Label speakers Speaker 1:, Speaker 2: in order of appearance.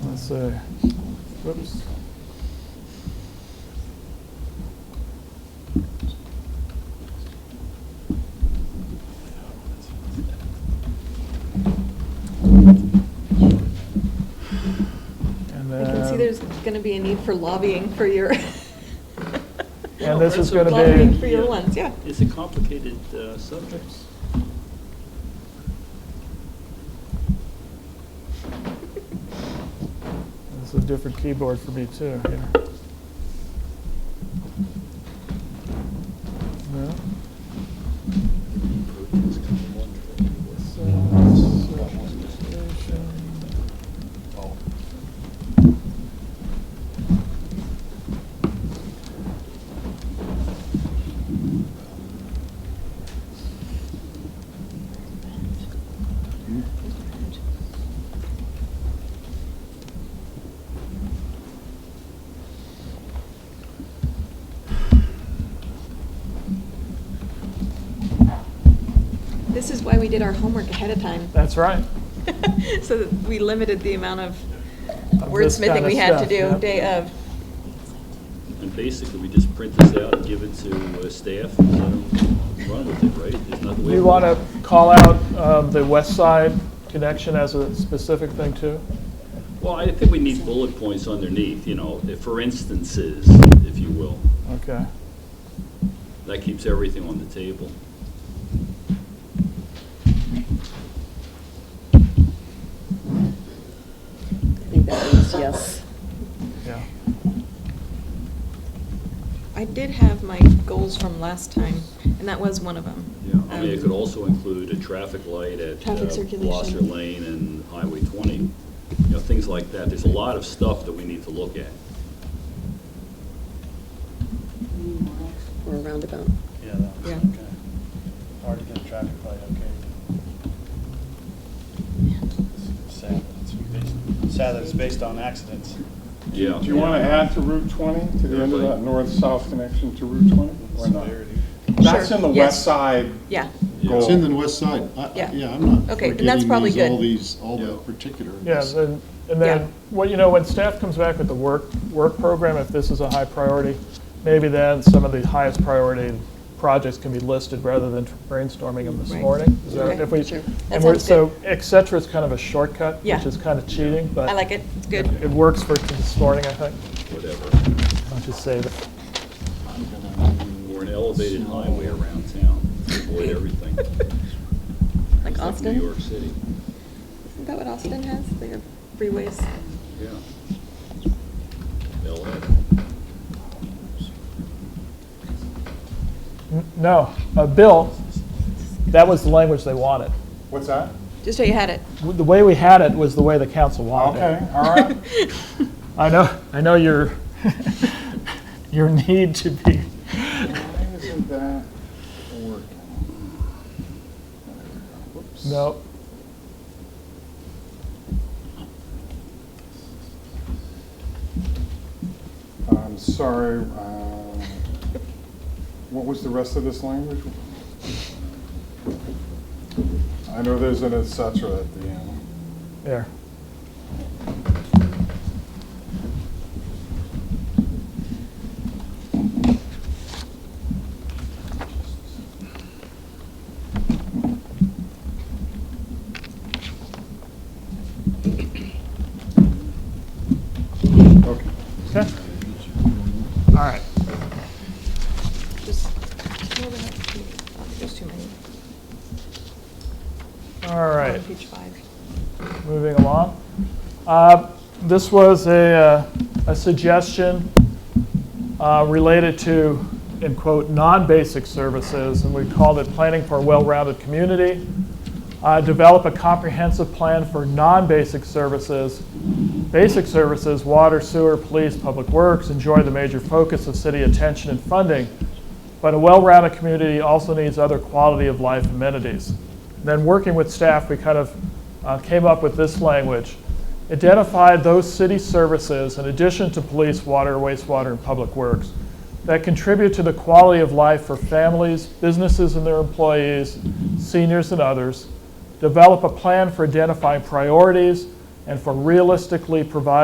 Speaker 1: so, whoops. And
Speaker 2: I can see
Speaker 1: then-
Speaker 2: there's going to be a need for lobbying for your.
Speaker 1: And this is gonna
Speaker 2: Lobbying for
Speaker 1: be,
Speaker 2: your ones, yeah.
Speaker 3: It's a complicated uh, subject.
Speaker 1: this is a different keyboard for me too, here. No? uh,
Speaker 2: This is why we did our homework ahead of time.
Speaker 1: That's right.
Speaker 2: So that we limited the amount of
Speaker 1: Of this
Speaker 2: wordsmithing
Speaker 1: kinda
Speaker 2: we had to
Speaker 1: stuff,
Speaker 2: do
Speaker 1: yeah.
Speaker 2: day of.
Speaker 3: And basically, we just print this out and give it to uh, staff and let 'em run with it, right? There's not the way.
Speaker 1: We want to call out um, the west side connection as a specific thing too?
Speaker 3: Well, I think we need bullet points underneath, you know, if- for instances, if you will.
Speaker 1: Okay.
Speaker 3: That keeps everything on the table.
Speaker 4: I think that means yes.
Speaker 1: Yeah.
Speaker 2: I did have my goals from last time, and that was one of them.
Speaker 3: Yeah, I mean, it could also include a traffic light at uh,
Speaker 2: Traffic circulation.
Speaker 3: Blosser Lane and Highway 20, you know, things like that. There's a lot of stuff that we need to look at.
Speaker 4: Or a roundabout.
Speaker 5: Yeah, that was
Speaker 2: Yeah.
Speaker 5: okay. Hard to get a traffic light, okay. Sad that it's based, sad that it's based on accidents.
Speaker 3: Yeah.
Speaker 6: Do you want to add to Route 20, to the end of that north-south connection to Route 20, or not?
Speaker 5: Severity.
Speaker 6: That's
Speaker 2: Sure,
Speaker 6: in the
Speaker 2: yes.
Speaker 6: west side
Speaker 2: Um, Yeah,
Speaker 3: Yeah.
Speaker 7: It's in the west side. I- I-
Speaker 2: Yeah.
Speaker 7: Yeah, I'm not
Speaker 2: Okay, and that's
Speaker 7: forgetting
Speaker 2: probably
Speaker 7: these, all
Speaker 2: good.
Speaker 7: these, all
Speaker 3: Yeah.
Speaker 7: the particulars.
Speaker 1: Yeah, then- and then, well, you know, when staff comes back with the work, work program, if this is a high priority, maybe then some of the highest priority projects can be listed rather than brainstorming them this
Speaker 2: Right.
Speaker 1: morning. Is that-
Speaker 2: Okay,
Speaker 1: if we-
Speaker 4: sure.
Speaker 1: And
Speaker 2: That
Speaker 1: we're,
Speaker 2: sounds
Speaker 1: so et cetera is kind of a shortcut,
Speaker 2: Yeah.
Speaker 1: which is kind of cheating, but.
Speaker 2: I like it, it's good.
Speaker 1: It works for this morning, I think.
Speaker 3: Whatever.
Speaker 1: I'll just say that.
Speaker 7: I'm gonna-
Speaker 3: Or an elevated highway around town to avoid everything.
Speaker 2: Like
Speaker 3: It's
Speaker 2: Austin?
Speaker 3: New York City,
Speaker 2: Isn't that what Austin has, their freeways?
Speaker 3: yeah. LA.
Speaker 1: N- No, uh, Bill, that was the language they wanted.
Speaker 6: What's that?
Speaker 2: Just how you had it.
Speaker 1: W- The way we had it was the way the council wanted it.
Speaker 6: Okay, all right.
Speaker 1: I know, I know your, your need to be,
Speaker 6: Why isn't that working? Whoops.
Speaker 1: no.
Speaker 6: I'm sorry. uh, What was the rest of this language? I know there's an et cetera at the end.
Speaker 1: There.
Speaker 6: Okay.
Speaker 1: Okay. All right.
Speaker 2: Just, scroll down. Oh, there's too many.
Speaker 1: All right.
Speaker 2: On page five.
Speaker 1: moving along. Uh, This was a, uh, a suggestion uh, related to, in quote, "non-basic services," and we called it Planning for a Well-Rounded Community. Uh, Develop a comprehensive plan for non-basic services. Basic services, water, sewer, police, public works, enjoy the major focus of city attention and funding. But a well-rounded community also needs other quality of life amenities. Then working with staff, we kind of uh, came up with this language. Identify those city services in addition to police, water, wastewater, and public works that contribute to the quality of life for families, businesses and their employees, seniors and others. Develop a plan for identifying priorities and for realistically providing